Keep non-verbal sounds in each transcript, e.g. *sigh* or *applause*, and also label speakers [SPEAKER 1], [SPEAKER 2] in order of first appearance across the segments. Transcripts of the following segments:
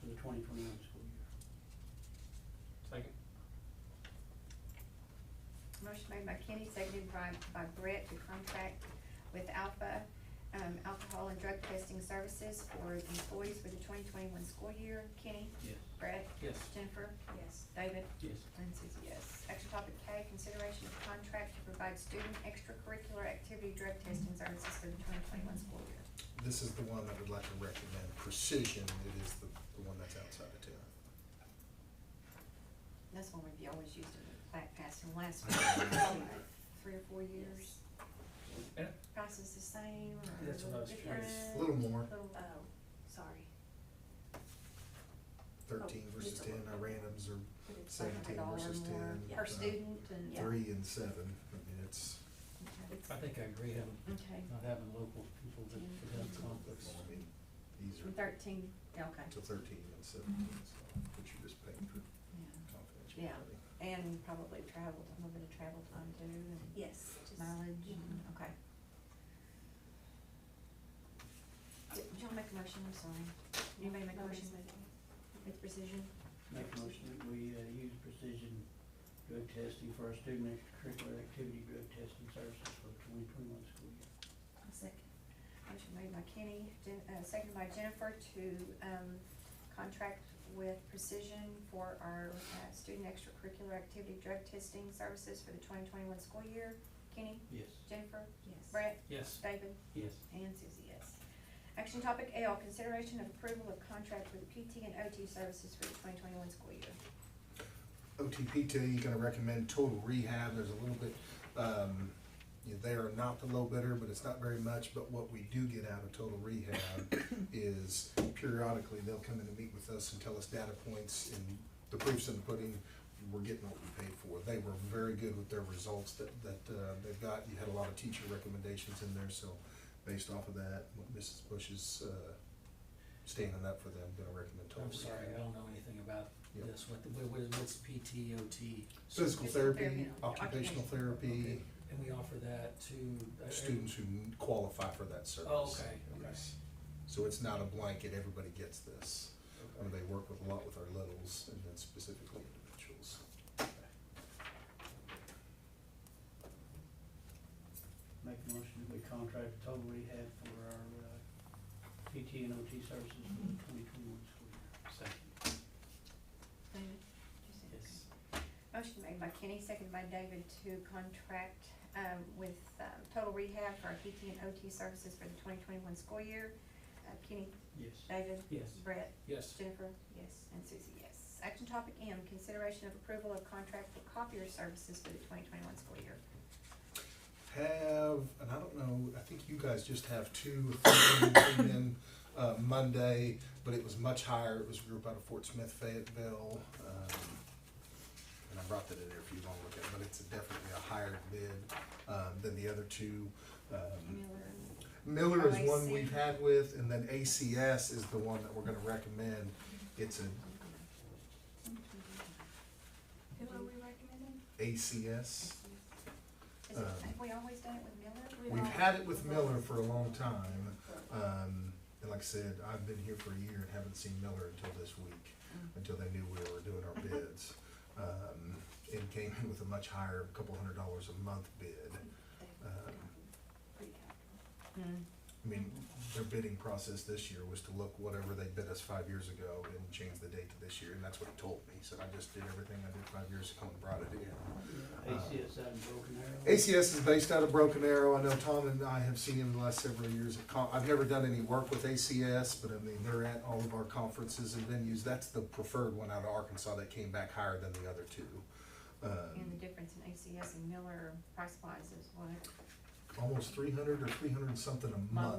[SPEAKER 1] for the twenty twenty-one school year.
[SPEAKER 2] Second.
[SPEAKER 3] Motion made by Kenny, seconded by, by Brett to contract with Alpha, um, Alcohol and Drug Testing Services for employees for the twenty twenty-one school year. Kenny?
[SPEAKER 1] Yes.
[SPEAKER 3] Brett?
[SPEAKER 2] Yes.
[SPEAKER 3] Jennifer?
[SPEAKER 4] Yes.
[SPEAKER 3] David?
[SPEAKER 1] Yes.
[SPEAKER 3] And Susie, yes. Action topic K, consideration of contract to provide student extracurricular activity drug testing services for the twenty twenty-one school year.
[SPEAKER 5] This is the one I would like to recommend, Precision, it is the, the one that's outside of town.
[SPEAKER 3] That's one we've always used in the back past and last, probably *coughs* three or four years.
[SPEAKER 2] Yeah.
[SPEAKER 3] Price is the same or
[SPEAKER 2] That's what I was curious.
[SPEAKER 3] different?
[SPEAKER 5] A little more,
[SPEAKER 3] Little-
[SPEAKER 4] Oh, sorry.
[SPEAKER 5] thirteen versus ten, our randoms are
[SPEAKER 4] But it's
[SPEAKER 3] like a
[SPEAKER 5] seventeen
[SPEAKER 3] dollar
[SPEAKER 5] versus
[SPEAKER 3] more
[SPEAKER 5] ten.
[SPEAKER 4] Yeah.
[SPEAKER 3] Per
[SPEAKER 5] uh,
[SPEAKER 3] student and.
[SPEAKER 4] Yeah.
[SPEAKER 5] Three and seven, I mean, it's,
[SPEAKER 3] Okay.
[SPEAKER 2] I think I agree, having,
[SPEAKER 3] Okay.
[SPEAKER 2] not having local people that that have conflicts.
[SPEAKER 5] I mean, these
[SPEAKER 3] And
[SPEAKER 5] are
[SPEAKER 3] Thirteen, yeah, okay,
[SPEAKER 5] to thirteen and seventeen, so, but you're just paying for
[SPEAKER 3] yeah.
[SPEAKER 5] confidentiality.
[SPEAKER 3] Yeah. And probably travel, a little bit of travel time too and
[SPEAKER 4] Yes, just.
[SPEAKER 3] mileage and, okay. Do do you wanna make a motion, I'm sorry? Anybody make a motion with precision?
[SPEAKER 1] Make a motion that we, uh, use precision drug testing for our student extracurricular activity drug testing services for the twenty twenty-one school year.
[SPEAKER 3] A second. Motion made by Kenny, Jen, uh, seconded by Jennifer to, um, contract with Precision for our, uh, student extracurricular activity drug testing services for the twenty twenty-one school year. Kenny,
[SPEAKER 2] Yes.
[SPEAKER 3] Jennifer,
[SPEAKER 4] Yes.
[SPEAKER 3] Brett,
[SPEAKER 2] Yes.
[SPEAKER 3] David,
[SPEAKER 1] Yes.
[SPEAKER 3] and Susie, yes. Action topic L, consideration of approval of contract with PT and OT services for the twenty twenty-one school year.
[SPEAKER 5] OTP to you, gonna recommend total rehab, there's a little bit, um, you know, they are not the low bidder, but it's not very much, but what we do get out of total rehab is periodically, they'll come in and meet with us and tell us data points and the proofs in the pudding, we're getting what we paid for. They were very good with their results that, that, uh, they've got, you had a lot of teacher recommendations in there, so based off of that, what Mrs. Bush is, uh, standing up for them, gonna recommend total
[SPEAKER 2] I'm sorry, I
[SPEAKER 5] rehab.
[SPEAKER 2] don't know anything about
[SPEAKER 5] Yeah.
[SPEAKER 2] this, what, the- what, what- what's PTOT?
[SPEAKER 5] Physical
[SPEAKER 3] Physical
[SPEAKER 5] therapy,
[SPEAKER 3] therapy,
[SPEAKER 5] occupational
[SPEAKER 3] occupational.
[SPEAKER 5] therapy,
[SPEAKER 2] Okay. And we offer that to? uh,
[SPEAKER 5] students who qualify for that service.
[SPEAKER 2] Oh, okay, okay.
[SPEAKER 5] Yes. So it's not a blanket, everybody gets this. I mean,
[SPEAKER 2] Okay.
[SPEAKER 5] they work with, a lot with our littles and then specifically individuals.
[SPEAKER 1] Make a motion that we contract total rehab for our, uh, PT and OT services for the twenty twenty-one school year.
[SPEAKER 2] Second.
[SPEAKER 3] David?
[SPEAKER 2] Yes.
[SPEAKER 3] Motion made by Kenny, seconded by David to contract um, with um, Total Rehab for our PT and OT services for the twenty twenty-one school year. Uh, Kenny,
[SPEAKER 1] Yes.
[SPEAKER 3] David,
[SPEAKER 2] Yes.
[SPEAKER 3] Brett,
[SPEAKER 2] Yes.
[SPEAKER 3] Jennifer, yes, and Susie, yes. Action topic M, consideration of approval of contract for copier services for the twenty twenty-one school year.
[SPEAKER 5] Have, and I don't know, I think you guys just have two, or three that came in, uh, Monday, but it was much higher, it was a group out of Fort Smith Fayetteville. um, And I brought that in there if you wanna look at it, but it's definitely a higher bid, um, than the other two. Um,
[SPEAKER 3] Miller and
[SPEAKER 5] Miller is one
[SPEAKER 3] OAC.
[SPEAKER 5] we've had with, and then ACS is the one that we're gonna recommend. It's an
[SPEAKER 4] Who are we recommending?
[SPEAKER 5] ACS.
[SPEAKER 3] Is it,
[SPEAKER 5] Um,
[SPEAKER 3] have we always done it with Miller?
[SPEAKER 5] We've had it with Miller for a long time. Um, and like I said, I've been here for a year and haven't seen Miller until this week, until they knew we were doing our bids. Um, and came in with a much higher, couple hundred dollars a month bid. Um,
[SPEAKER 4] Pretty comfortable.
[SPEAKER 3] Mm.
[SPEAKER 5] I mean, their bidding process this year was to look whatever they bid us five years ago and change the date to this year, and that's what he told me. So I just did everything I did five years ago and brought it in.
[SPEAKER 1] ACS out in Broken Arrow.
[SPEAKER 5] ACS is based out of Broken Arrow. I know Tom and I have seen him the last several years. At con- I've never done any work with ACS, but I mean, they're at all of our conferences and venues. That's the preferred one out of Arkansas that came back higher than the other two.
[SPEAKER 3] And the
[SPEAKER 5] Um,
[SPEAKER 3] difference in ACS and Miller price wise is what?
[SPEAKER 5] almost three hundred or three hundred and something a month.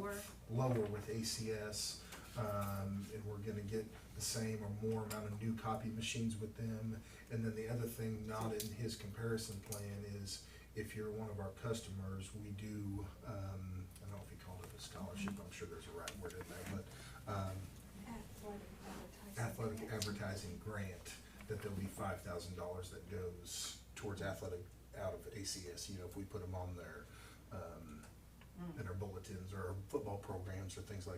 [SPEAKER 3] Lower?
[SPEAKER 5] lower with ACS, um, and we're gonna get the same or more amount of new copy machines with them. And then the other thing not in his comparison plan is if you're one of our customers, we do, um, I don't know if he called it a scholarship, I'm sure there's a right word in there, but, um,
[SPEAKER 4] Athletic advertising.
[SPEAKER 5] athletic advertising grant, that there'll be five thousand dollars that goes towards athletic out of ACS, you know, if we put them on their, um, in our bulletins or our football programs or things like